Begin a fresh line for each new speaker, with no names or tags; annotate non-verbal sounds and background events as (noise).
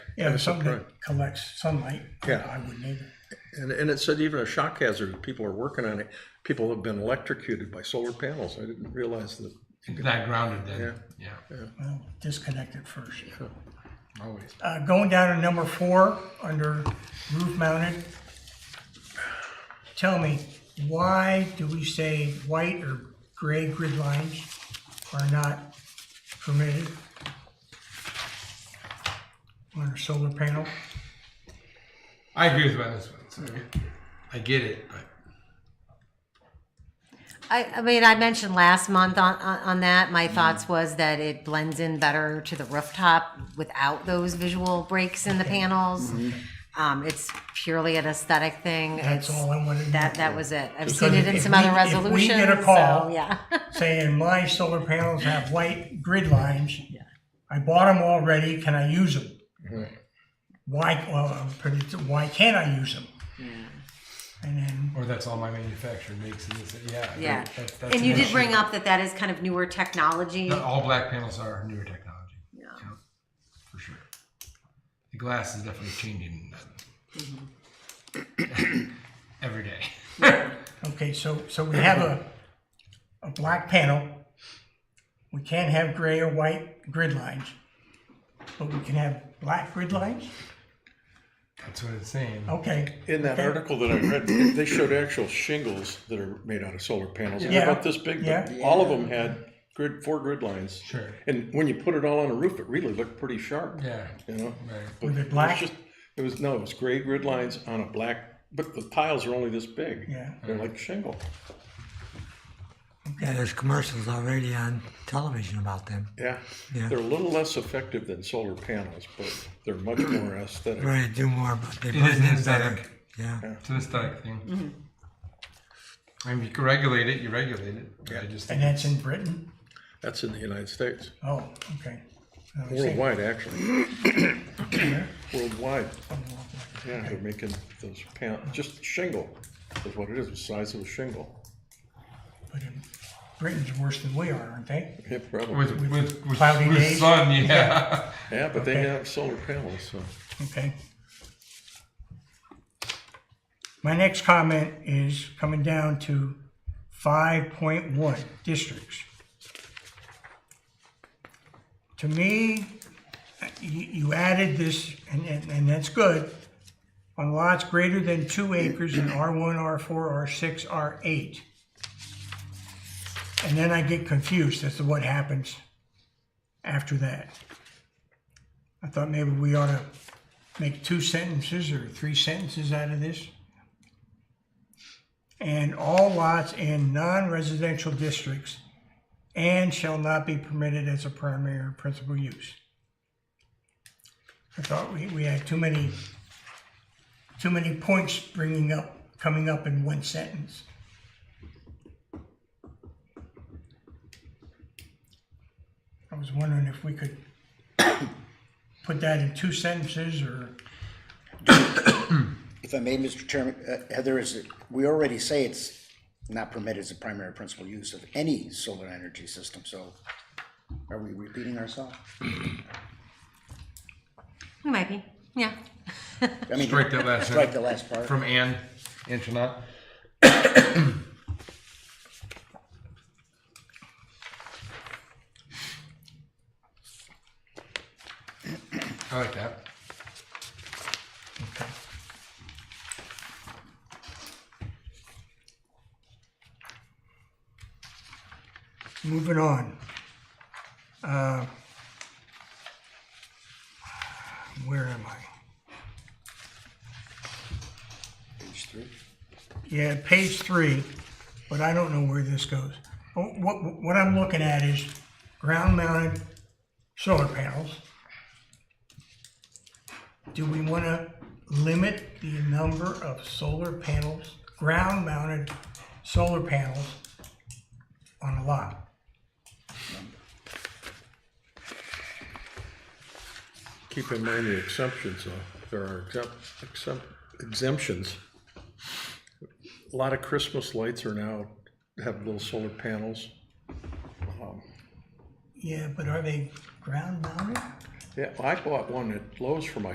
Yeah, something
correct.
that collects sunlight.
Yeah.
I wouldn't either.
And, and it said even a shock hazard, people are working on it. People have been electrocuted by solar panels. I didn't realize that.
Not grounded then, yeah,
Well, disconnect it first.
always.
Uh, going down to number four, under roof mounted. Tell me, why do we say white or gray grid lines are not permitted? On a solar panel?
I agree with you on this one, so I get it, but
I, I mean, I mentioned last month on, on, on that,
Mm-hmm.
my thoughts was that it blends in better to the rooftop without those visual breaks in the panels. Um, it's purely an aesthetic thing.
Mm-hmm. That's
It's-
all I wanted to know.
That, that was it. I've
Because
seen it in
if
some
we-
other
if
resolutions.
we get a
so,
call-
Yeah.
Saying my solar panels have white grid lines. I bought them already, can I use them? Why, well, I'm pretty- why can't I use them? And then
or that's all my manufacturer makes. And this, yeah, I agree.
Yeah.
That- that's
And
an
you did
issue.
bring up that that is kind of newer technology.
Not all black panels are newer technology.
Yeah.
for sure. The glass is definitely changing uh,
Mm-hmm.
(coughs) every day.
Okay, so, so we have a, a black panel. We can't have gray or white grid lines, but we can have black grid lines?
That's what it's saying.
Okay,
In that article that I read, they showed actual shingles that are made out of solar panels. and They're
Yeah.
about this big, but
Yeah.
all of them had grid, four grid lines.
Sure.
And when you put it all on a roof, it really looked pretty sharp,
Yeah.
you know?
Right.
But
Was it
was
black?
just- It was, no, it was gray grid lines on a black, but the tiles are only this big.
Yeah.
They're like shingle.
Yeah, there's commercials already on television about them.
Yeah.
Yeah.
They're a little less effective than solar panels, but they're much more aesthetic.
We're gonna do more, but they
It is
blend
an
in better.
aesthetic.
Yeah,
It's an aesthetic thing.
Mm-hmm.
I mean, you can regulate it. You regulate it. but I just
and
think
that's in Britain?
That's in the United States.
Oh, okay. I was thinking-
Worldwide,
(clears throat)
actually. Worldwide. Yeah, they're making those pan, just shingle is what it is, the size of a shingle.
But in- Britain's worse than we are, aren't they?
Yeah, probably.
with with with,
Cloudy
with
days.
sun, yeah.
Yeah, but they
Okay.
have solar panels, so.
Okay. My next comment is coming down to five point one, districts. To me, you, you added this, and, and, and that's good, on lots greater than two acres in R one, R four, R six, R eight. And then I get confused as to what happens after that. I thought maybe we ought to make two sentences or three sentences out of this. And all lots in non-residential districts and shall not be permitted as a primary or principal use. I thought we, we had too many, too many points bringing up, coming up in one sentence. I was wondering if we could put that in two sentences or,
If I may, Mr. Chairman, uh, Heather, is it, we already say it's not permitted as a primary principal use of any solar energy system, so are we repeating ourselves?
It might be. Yeah.
I
(laughs)
mean,
Strike that last
Strike the
sentence
last part.
from Anne Antoinette. (coughs) I like that.
okay. Moving on. Uh, Where am I?
Page three.
Yeah, page three, but I don't know where this goes. Oh, What, what, what I'm looking at is ground mounted solar panels. Do we want to limit the number of solar panels, ground mounted solar panels on a lot?
Keep in mind the exemptions, though. There are exempt, exempt, exemptions. A lot of Christmas lights are now, have little solar panels.
Yeah, but are they ground mounted?
Yeah, I bought one at Lowe's for my